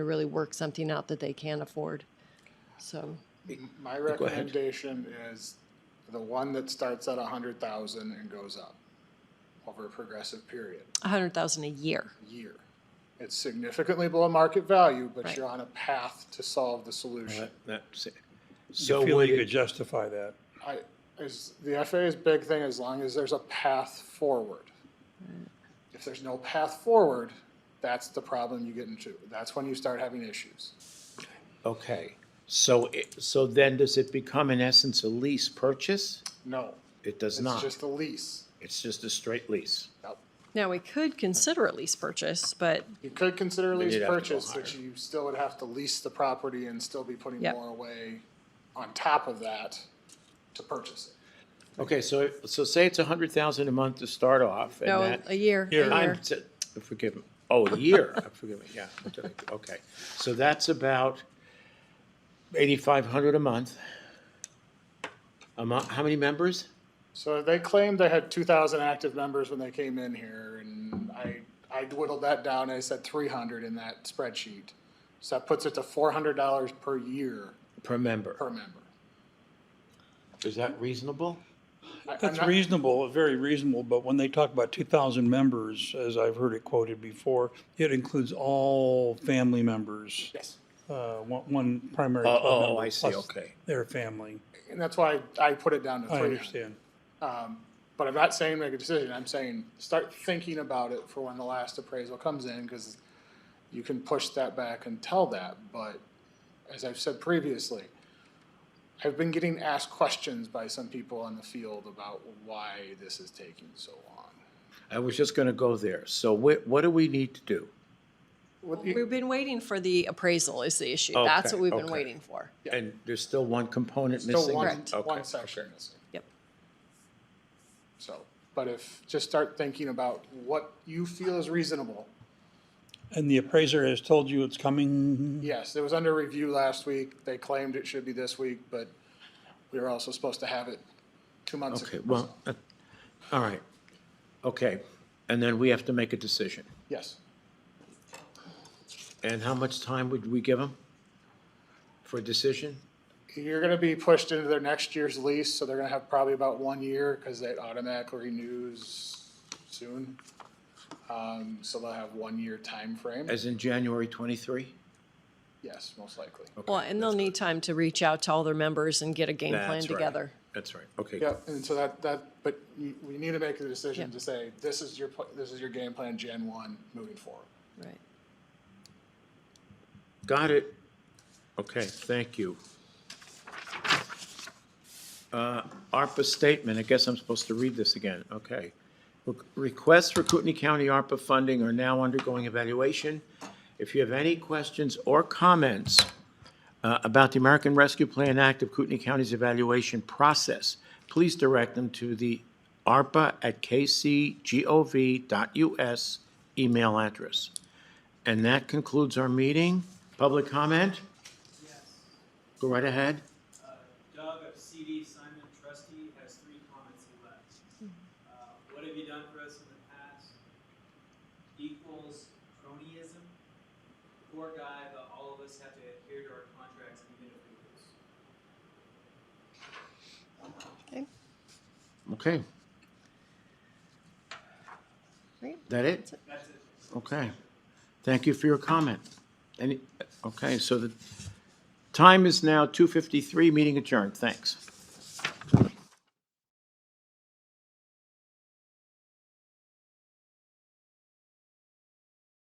to really work something out that they can afford. So, My go ahead. recommendation is the one that starts at a hundred thousand and goes up over a progressive period, a hundred thousand a year. year. It's significantly below market value, but Right. you're on a path to solve the solution. That- that's it. So So feel would you could it, justify that. I, is, the FAA's big thing, as long as there's a path forward. If there's no path forward, that's the problem you get into. That's when you start having issues. okay, so it, so then does it become in essence a lease purchase? No, It does it's not. just a lease. It's just a straight lease. Yep. Now, we could consider a lease purchase, but You could consider a Then lease you'd have to go purchase, but higher. you still would have to lease the property and still be putting Yep. more away on top of that to purchase it. Okay, so, so say it's a hundred thousand a month to start off and no, that. a year, a Year. year. I'm, t- forgive me, oh, a year, Uh, forgive me, yeah, okay. So that's about eighty-five hundred a month. A month, how many members? So they claimed they had two thousand active members when they came in here, and I, I dwindled that down, I said three hundred in that spreadsheet. So that puts it to four hundred dollars per year Per member. per member. Is that reasonable? I- I'm That's not- reasonable, very reasonable, but when they talk about two thousand members, as I've heard it quoted before, it includes all family members. Yes, Uh, one, one primary Oh, club oh, member I see, plus okay. Their family, and that's why I put it down to I three hundred. understand. But I'm not saying make a decision, I'm saying start thinking about it for when the last appraisal comes in, because you can push that back and tell that, but as I've said previously, I've been getting asked questions by some people in the field about why this is taking so long. I was just gonna go there. So what, what do we need to do? What you- We've been waiting for the appraisal is the issue. That's Okay, what we've been okay. waiting for. And there's still one component missing? Still one, Correct. one Okay. section missing, Yep. so, but if, just start thinking about what you feel is reasonable. And the appraiser has told you it's coming, Yes, it was under review last week, they claimed it should be this week, but we were also supposed to have it two months ago. Okay, well, uh, all right, okay. And then we have to make a decision. Yes. And how much time would we give them for a decision? You're gonna be pushed into their next year's lease, so they're gonna have probably about one year, cause it automatically renews soon. Um, so they'll have one year time frame. As in January 23? yes, most likely. Well, and they'll need time to reach out to all their members and get a game plan That's right. together. That's right, okay. Yep, and so that, that, but you, we need to make the decision Yeah. to say, this is your, pl- this is your game plan, Gen one, moving forward. Right. Got it. Okay, thank you. Uh, ARPA statement, I guess I'm supposed to read this again, okay. Re- Requests for Kootenai County ARPA funding are now undergoing evaluation. If you have any questions or comments uh, about the American Rescue Plan Act of Kootenai County's evaluation process, please direct them to the arpa@kcgov.us email address. And that concludes our meeting. Public comment? Go right ahead. Doug of CD Simon Trustee has three comments he left. Uh, What have you done for us in the past? Equals cronyism. Poor guy, but all of us have to adhere to our contracts even if we lose. Okay. Great. That it? That's it. Okay. Thank you for your comment. Any, okay, so the time is now 2:53, meeting adjourned. Thanks.